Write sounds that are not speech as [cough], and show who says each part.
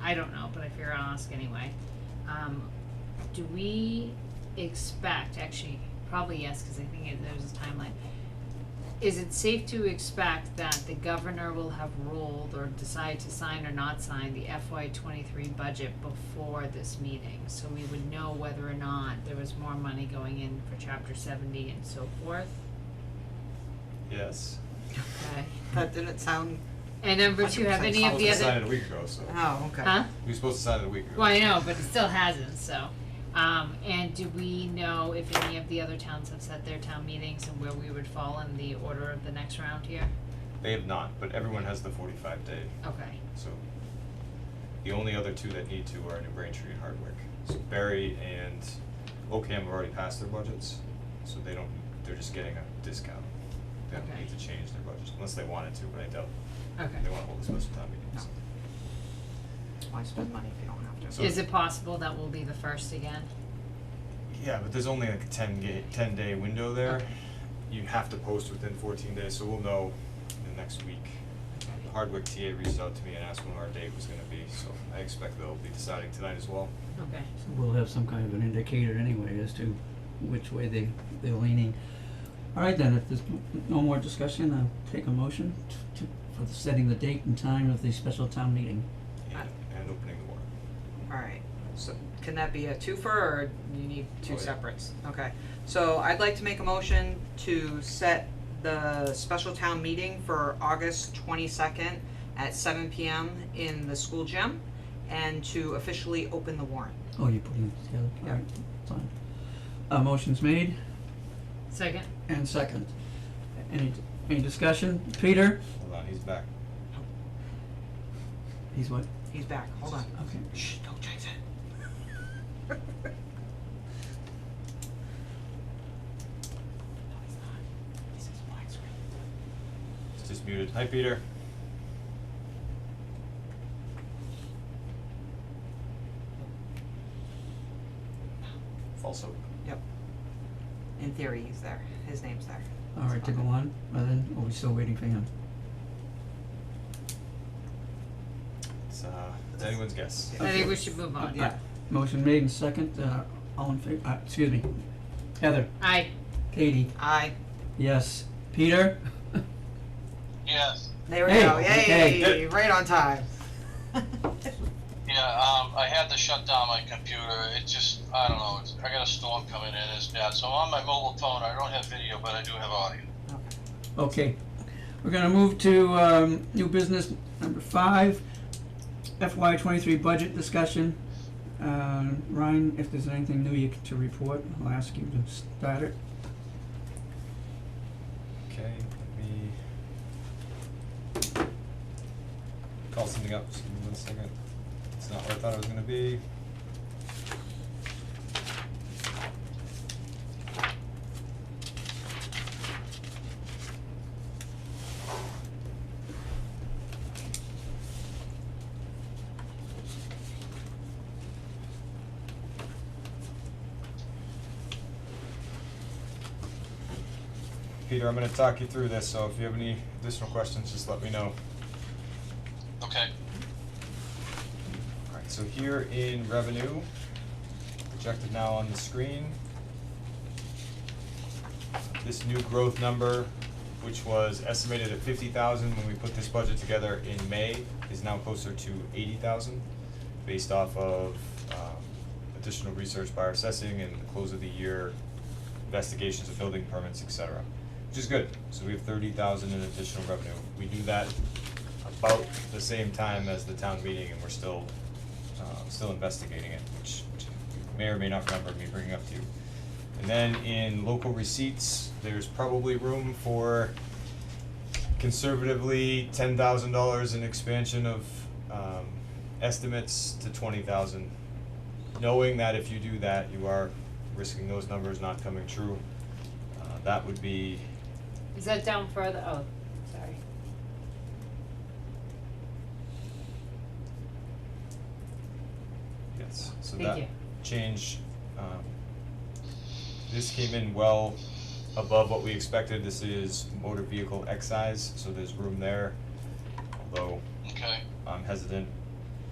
Speaker 1: I don't know, but I figure I'll ask anyway. Um, do we expect, actually, probably yes, cause I think it- there's a timeline. Is it safe to expect that the governor will have ruled or decide to sign or not sign the FY twenty-three budget before this meeting? So we would know whether or not there was more money going in for chapter seventy and so forth,
Speaker 2: Yes.
Speaker 1: okay?
Speaker 3: That didn't sound,
Speaker 1: And number two, have any of the
Speaker 2: We supposed to sign
Speaker 1: other,
Speaker 2: it a week ago, so,
Speaker 3: oh, okay.
Speaker 1: huh?
Speaker 2: we were supposed to sign it a week ago.
Speaker 1: Well, I know, but it still hasn't, so. Um, and do we know if any of the other towns have set their town meetings and where we would fall in the order of the next round here?
Speaker 2: They have not, but everyone has the forty-five day,
Speaker 1: Okay,
Speaker 2: so. The only other two that need to are New Braintree and Hardwick. So Barry and Ocam have already passed their budgets, so they don't, they're just getting a discount. They don't
Speaker 1: Okay.
Speaker 2: need to change their budgets unless they wanted to, but I doubt
Speaker 1: okay. Oh.
Speaker 2: they wanna hold a special town meeting, so.
Speaker 3: Why spend money if you don't have to?
Speaker 2: So-
Speaker 1: Is it possible that we'll be the first again?
Speaker 2: Yeah, but there's only like a ten ga- ten day window there.
Speaker 1: Okay.
Speaker 2: You have to post within fourteen days, so we'll know in the next week. The Hardwick TA reached out to me and asked when our date was gonna be, so I expect they'll be deciding tonight as well.
Speaker 1: Okay,
Speaker 4: So we'll have some kind of an indicator anyway as to which way they, they're leaning. Alright then, if there's n- no more discussion, I'll take a motion to, to, for the- setting the date and time of the special town meeting.
Speaker 3: Uh.
Speaker 2: And and opening the warrant.
Speaker 3: Alright, so can that be a twofer or you need
Speaker 2: Oh,
Speaker 3: two
Speaker 2: yeah.
Speaker 3: separates? Okay, so I'd like to make a motion to set the special town meeting for August twenty-second at seven P M in the school gym and to officially open the warrant.
Speaker 4: Oh, you're putting it together,
Speaker 3: Yeah.
Speaker 4: alright, fine. Uh, motion's made
Speaker 1: second?
Speaker 4: and second. Any, any discussion? Peter?
Speaker 2: Hold on, he's back.
Speaker 4: He's what?
Speaker 3: He's back, hold on.
Speaker 4: Okay.
Speaker 3: Shh, don't change it. [laughs] No, he's not. He says black screen.
Speaker 2: He's just muted. Hi, Peter. False hope.
Speaker 3: Yep. In theory, he's there. His name's there.
Speaker 4: Alright, to go on, and then, are we still waiting for him?
Speaker 2: It's uh, it's anyone's guess.
Speaker 1: I think we should move on.
Speaker 3: Yeah.
Speaker 4: Motion made and second, uh, all in favor, uh, excuse me. Heather,
Speaker 1: Aye,
Speaker 4: Katie,
Speaker 3: I.
Speaker 4: yes, Peter?
Speaker 5: Yes,
Speaker 3: There we
Speaker 4: Hey,
Speaker 3: go.
Speaker 4: okay.
Speaker 3: Yay! Right on time. [laughs]
Speaker 5: yeah, um, I had to shut down my computer, it just, I don't know, it's, I got a storm coming in, it's bad, so on my mobile phone, I don't have video, but I do have audio.
Speaker 4: Okay, we're gonna move to, um, new business number five, FY twenty-three budget discussion. Uh, Ryan, if there's anything new you, c- to report, I'll ask you to start it.
Speaker 2: Okay, let me call something up, just give me one second. It's not what I thought it was gonna be. Peter, I'm gonna talk you through this, so if you have any additional questions, just let me know.
Speaker 5: Okay,
Speaker 2: Alright, so here in revenue, projected now on the screen. This new growth number, which was estimated at fifty thousand when we put this budget together in May, is now closer to eighty thousand, based off of um additional research by our assessing and the close of the year investigations of building permits, et cetera, which is good. So we have thirty thousand in additional revenue. We do that about the same time as the town meeting and we're still, uh, still investigating it, which, which you may or may not remember me bringing up to you. And then in local receipts, there's probably room for conservatively ten thousand dollars in expansion of, um, estimates to twenty thousand. Knowing that if you do that, you are risking those numbers not coming true. Uh, that would be,
Speaker 1: is that down further, oh, sorry.
Speaker 2: yes, so that.
Speaker 1: Thank you.
Speaker 2: change. Um, this came in well above what we expected. This is motor vehicle excise, so there's room there. Although
Speaker 5: okay,
Speaker 2: I'm hesitant